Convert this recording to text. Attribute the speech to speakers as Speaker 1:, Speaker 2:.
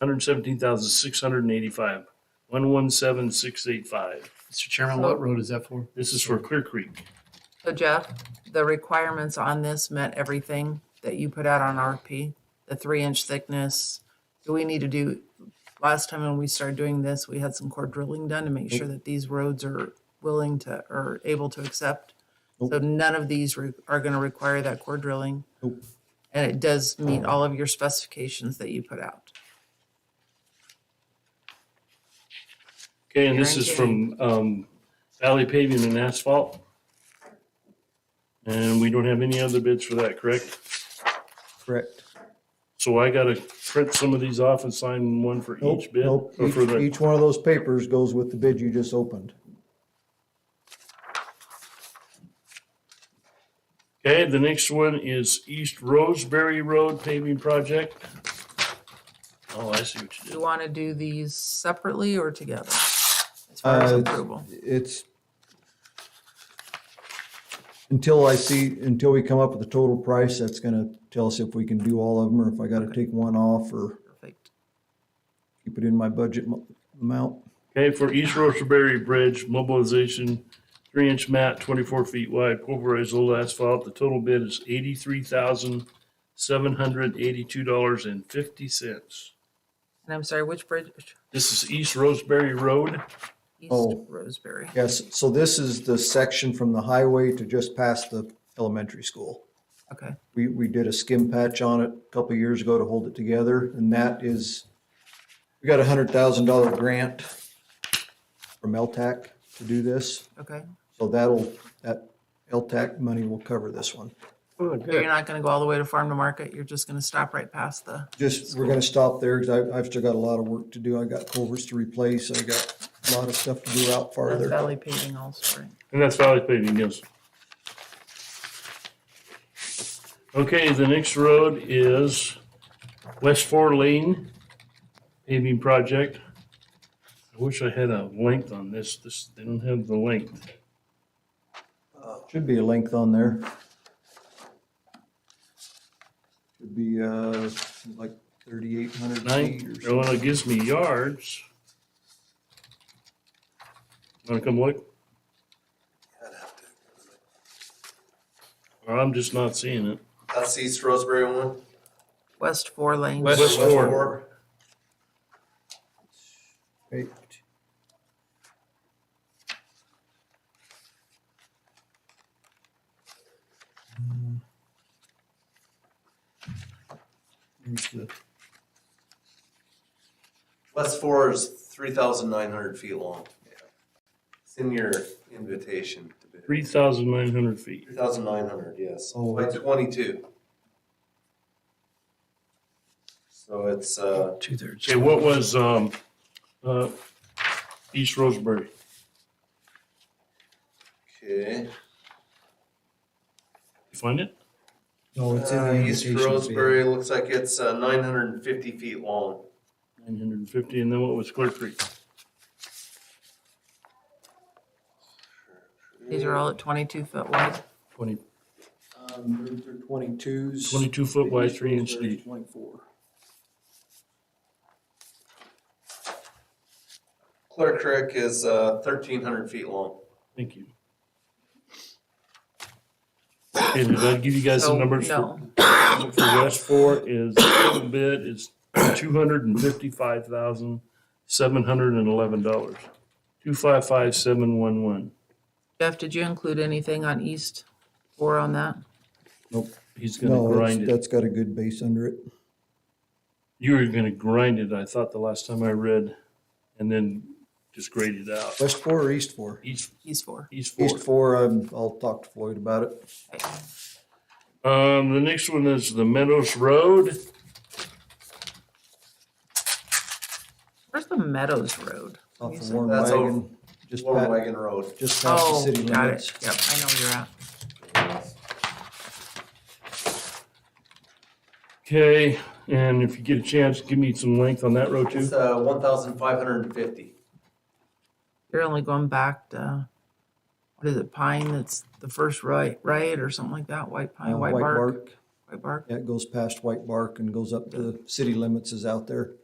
Speaker 1: hundred seventeen thousand six hundred and eighty-five, one one seven six eight five.
Speaker 2: Mr. Chairman, what road is that for?
Speaker 1: This is for Clear Creek.
Speaker 3: So Jeff, the requirements on this met everything that you put out on RFP, the three inch thickness. Do we need to do, last time when we started doing this, we had some core drilling done to make sure that these roads are willing to, or able to accept. So none of these re- are gonna require that core drilling. And it does
Speaker 4: Um.
Speaker 3: meet all of your specifications that you put out.
Speaker 1: Okay, and this is from um, Valley Paving and Asphalt. And we don't have any other bids for that, correct?
Speaker 4: Correct.
Speaker 1: So I gotta print some of these off and sign one for
Speaker 4: Nope,
Speaker 1: each bid?
Speaker 4: nope.
Speaker 1: Or
Speaker 4: Each,
Speaker 1: for the,
Speaker 4: each one of those papers goes with the bid you just opened.
Speaker 1: okay, the next one is East Roseberry Road paving project. Oh, I see what you
Speaker 3: Do you
Speaker 1: did.
Speaker 3: wanna do these separately or together? As far as
Speaker 4: Uh,
Speaker 3: approval,
Speaker 4: It's until I see, until we come up with the total price, that's gonna tell us if we can do all of them or if I gotta take one off or
Speaker 3: perfect.
Speaker 4: keep it in my budget mo- amount.
Speaker 1: Okay, for East Roseberry Bridge mobilization, three inch mat, twenty-four feet wide, pulverized old asphalt. The total bid is eighty-three thousand, seven hundred eighty-two dollars and fifty cents.
Speaker 3: And I'm sorry, which bridge?
Speaker 1: This is East Roseberry Road.
Speaker 3: East
Speaker 4: Oh.
Speaker 3: Roseberry.
Speaker 4: Yes, so this is the section from the highway to just past the elementary school.
Speaker 3: Okay.
Speaker 4: We, we did a skim patch on it a couple of years ago to hold it together, and that is, we got a hundred thousand dollar grant from LTAC to do this,
Speaker 3: Okay,
Speaker 4: so that'll, that LTAC money will cover this one.
Speaker 1: Oh,
Speaker 3: so you're not gonna go all the way to farm to market, you're just gonna stop right past the,
Speaker 4: Just, we're gonna stop there, because I, I've still got a lot of work to do, I got culverts to replace, I got a lot of stuff to do out
Speaker 3: the
Speaker 4: farther.
Speaker 3: valley paving also, right?
Speaker 1: And that's Valley Paving, yes. Okay, the next road is West Four Lane paving project. I wish I had a length on this. This, they don't have the length.
Speaker 4: Should be a length on there. Should be, uh, like thirty-eight hundred feet
Speaker 1: Nine,
Speaker 4: or
Speaker 1: no
Speaker 4: something.
Speaker 1: one gives me yards. Want to come look? Or I'm just not seeing it.
Speaker 5: That's East Roseberry one.
Speaker 3: West four lanes.
Speaker 1: West- Ford.
Speaker 5: Ford.
Speaker 4: Eight. Here's the-
Speaker 5: West Four is three thousand nine hundred feet long. It's in your invitation to bid.
Speaker 1: Three thousand nine hundred feet.
Speaker 5: Three thousand nine hundred, yes,
Speaker 4: Oh.
Speaker 5: by twenty-two. So it's, uh,
Speaker 2: Two thirds.
Speaker 1: Okay, what was, um, uh, East Roseberry?
Speaker 5: okay.
Speaker 1: You find it?
Speaker 4: No, it's in
Speaker 5: Uh,
Speaker 4: the
Speaker 5: East
Speaker 4: invitation. fee.
Speaker 5: Roseberry looks like it's, uh, nine hundred and fifty feet long.
Speaker 1: Nine hundred and fifty, and then what was Clear Creek?
Speaker 3: These are all at twenty-two foot wide.
Speaker 1: Twenty,
Speaker 4: Um, they're- they're Twenty-twos.
Speaker 1: twenty-two foot wide,
Speaker 4: East
Speaker 1: three inch
Speaker 4: Roseberry's
Speaker 1: deep.
Speaker 4: Twenty-four.
Speaker 5: Clear Creek is, uh, thirteen hundred feet long.
Speaker 1: Thank you. Okay, did I give you guys
Speaker 3: So,
Speaker 1: some numbers for,
Speaker 3: No,
Speaker 1: for West Four is, total bid is two hundred and fifty-five thousand, seven hundred and eleven dollars. Two five five seven one one.
Speaker 3: Jeff, did you include anything on east four on that?
Speaker 1: He's gonna
Speaker 4: No,
Speaker 1: grind
Speaker 4: it's-
Speaker 1: it.
Speaker 4: that's got a good base under it.
Speaker 1: You were gonna grind it, I thought the last time I read, and then just grade it out.
Speaker 4: West four or east four?
Speaker 1: East,
Speaker 3: East four.
Speaker 1: east four.
Speaker 4: East four, um, I'll talk to Floyd about it.
Speaker 3: Okay.
Speaker 1: Um, the next one is the Meadows Road.
Speaker 3: Where's the Meadows Road? Can
Speaker 4: Off
Speaker 3: you
Speaker 4: of
Speaker 3: say-
Speaker 4: Warren
Speaker 5: That's over-
Speaker 4: Wagon. Just
Speaker 5: Warm
Speaker 4: past,
Speaker 5: Wagon Road.
Speaker 4: just past the
Speaker 3: Oh,
Speaker 4: city
Speaker 3: got it,
Speaker 4: limits.
Speaker 3: yep, I know where you're at.
Speaker 1: Okay, and if you get a chance, give me some length on that road too.
Speaker 5: It's, uh, one thousand five hundred and fifty.
Speaker 3: You're only going back to, what is it, Pine, that's the first right, right, or something like that, White
Speaker 4: Uh,
Speaker 3: Pine, White Bark? White Bark,
Speaker 4: Yeah, it goes past White Bark and goes up to the city limits is out there.